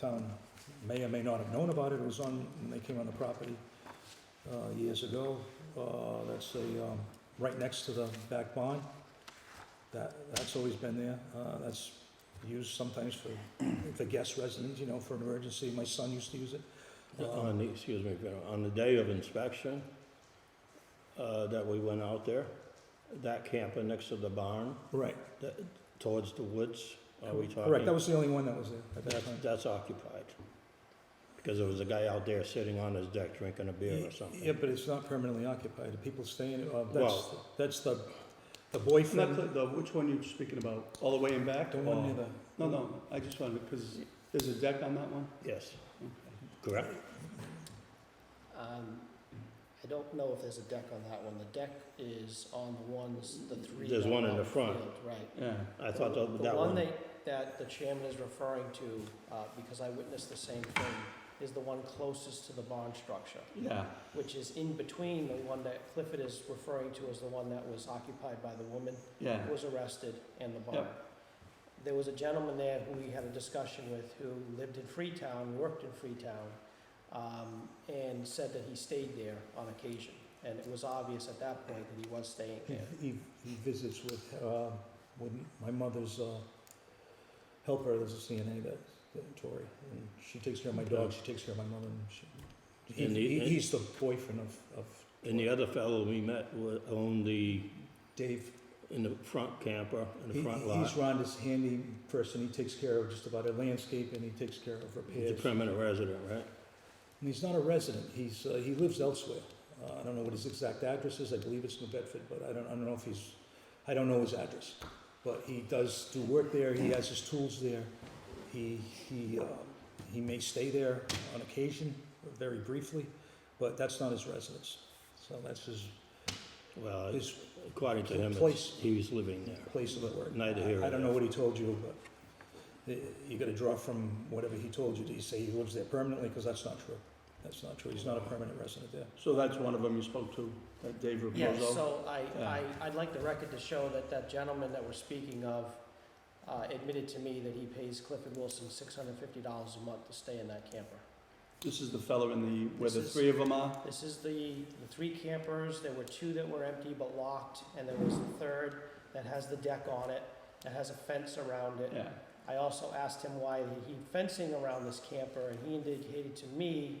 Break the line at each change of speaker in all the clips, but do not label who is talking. town may or may not have known about it, it was on, when they came on the property uh, years ago. Uh, That's the, um, right next to the back barn. That, that's always been there. Uh, That's used sometimes for, for guest residents, you know, for an emergency. My son used to use it.
Uh, On the, excuse me, Vera, on the day of inspection, uh, that we went out there, that camper next to the barn,
Right,
that, towards the woods, are we talking?
correct. That was the only one that was there at that
That's,
time.
that's occupied. Because there was a guy out there sitting on his deck drinking a beer or
Yeah,
something.
but it's not permanently occupied. The people staying, uh, that's,
Well-
that's the, the
Not the,
boyfriend,
the, which one you're speaking about, all the way in back?
the one near
or-
the,
No, no, I just wanted, because there's a deck on that one?
Yes. Correct?
Um, I don't know if there's a deck on that one. The deck is on the ones, the three.
There's
that are
one in
on
the front.
field, Right.
Yeah.
I thought that, that
The one
one,
that, that the chairman is referring to, uh, because I witnessed the same thing, is the one closest to the barn structure,
Yeah,
which is in between the one that Clifford is referring to as the one that was occupied by the woman
yeah,
was arrested in the barn.
Yep.
There was a gentleman there who we had a discussion with who lived in Freetown, worked in Freetown, um, and said that he stayed there on occasion. And it was obvious at that point that he was staying
he,
there.
he he visits with, uh, with my mother's, uh, helper, there's a CNA that, that Tori, and she takes care of my dog, she takes care of my mother, and she, he-
And he-
he, he's the boyfriend of, of
and the other fellow we met wa- owned the,
Dave.
in the front camper, in
He-
the front
he- He's
lot,
Rhonda's handy person, he takes care of just about her landscape, and he takes care of
the
repairs.
permanent resident, right?
And he's not a resident, he's, uh, he lives elsewhere. Uh, I don't know what his exact address is, I believe it's New Bedford, but I don't, I don't know if he's, I don't know his address. But he does do work there, he has his tools there, he, he, uh, he may stay there on occasion, very briefly, but that's not his residence. So that's his,
Well,
his
according to him,
Place.
it's, he was living there.
place of work.
Neither here
I don't know
nor
what he told you, but uh, you gotta draw from whatever he told you. Did he say he lives there permanently? Because that's not true. That's not true, he's not a permanent resident there.
so that's one of them you spoke to, that Dave Raposo?
Yeah, so I,
Yeah.
I, I'd like the record to show that that gentleman that we're speaking of uh, admitted to me that he pays Clifford Wilson six hundred and fifty dollars a month to stay in that camper.
This is the fellow in the, where the
This is-
three of them are?
This is the, the three campers, there were two that were empty but locked, and there was the third that has the deck on it, that has a fence around it.
Yeah,
I also asked him why he fencing around this camper, and he indicated to me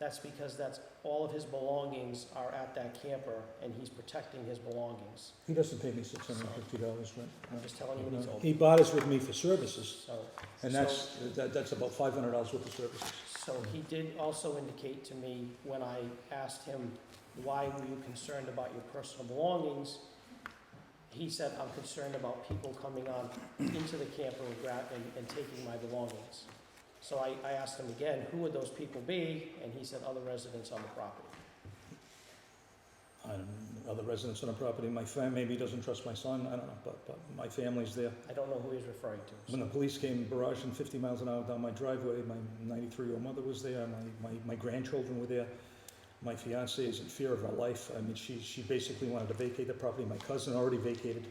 that's because that's, all of his belongings are at that camper, and he's protecting his belongings.
He doesn't pay me six hundred and fifty dollars rent.
I'm just telling you what he's
No.
told
He
me,
bothers with me for services,
so.
and
so-
that's, that, that's about five hundred dollars worth of services.
So he did also indicate to me, when I asked him, why were you concerned about your personal belongings? He said, I'm concerned about people coming on into the camper and grab, and, and taking my belongings. So I, I asked him again, who would those people be? And he said, other residents on the property.
And other residents on the property, my fam, maybe he doesn't trust my son, I don't know, but, but my family's there.
I don't know who he's referring to.
When
so-
the police came barraging fifty miles an hour down my driveway, my ninety-three-year-old mother was there, my, my, my grandchildren were there. My fiance is in fear of her life, I mean, she, she basically wanted to vacate the property, my cousin already vacated.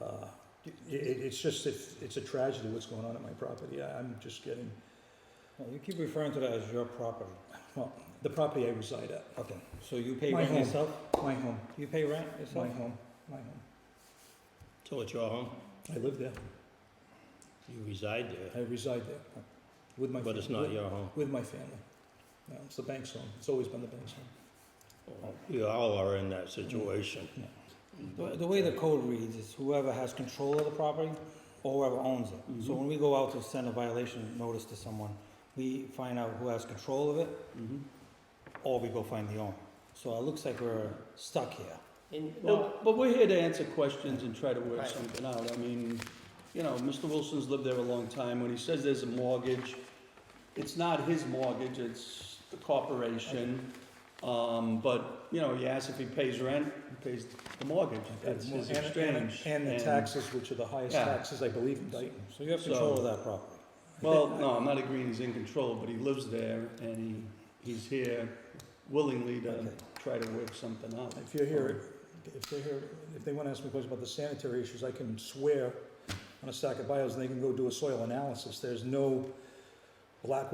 Uh, It, it, it's just, it's, it's a tragedy what's going on at my property, I, I'm just getting,
Well, You keep referring to that as your property.
well, the property I reside at.
Okay. So you pay
My
rent
home.
yourself?
My home,
You pay rent
my
yourself?
home, my home.
So it's your home,
I live there,
you reside there,
I reside there, with my.
but it's
family-
not your home.
With my family. No, it's the bank's home, it's always been the bank's home.
We all are in that situation.
Yeah.
The- The way the code reads is whoever has control of the property or whoever owns it. So
Mhm.
when we go out to send a violation notice to someone, we find out who has control of it
mm-hmm.
or we go find the owner. So it looks like we're stuck here.
In, uh, no,
Well, but we're here to answer questions and try to work
Right.
something out. I mean, you know, Mr. Wilson's lived there a long time. When he says there's a mortgage, it's not his mortgage, it's the corporation. Um, but, you know, he asks if he pays rent, he pays the mortgage. That's his
And- and-
exchange.
And the taxes, which are the highest
Yeah.
taxes, I believe, in Dayton.
So you have control
So-
of that property.
Well, no, I'm not agreeing he's in control, but he lives there and he, he's here willingly to
Okay.
try to work something out.
If you're here, if they're here, if they want to ask me questions about the sanitary issues, I can swear on a stack of bios, and they can go do a soil analysis. There's no black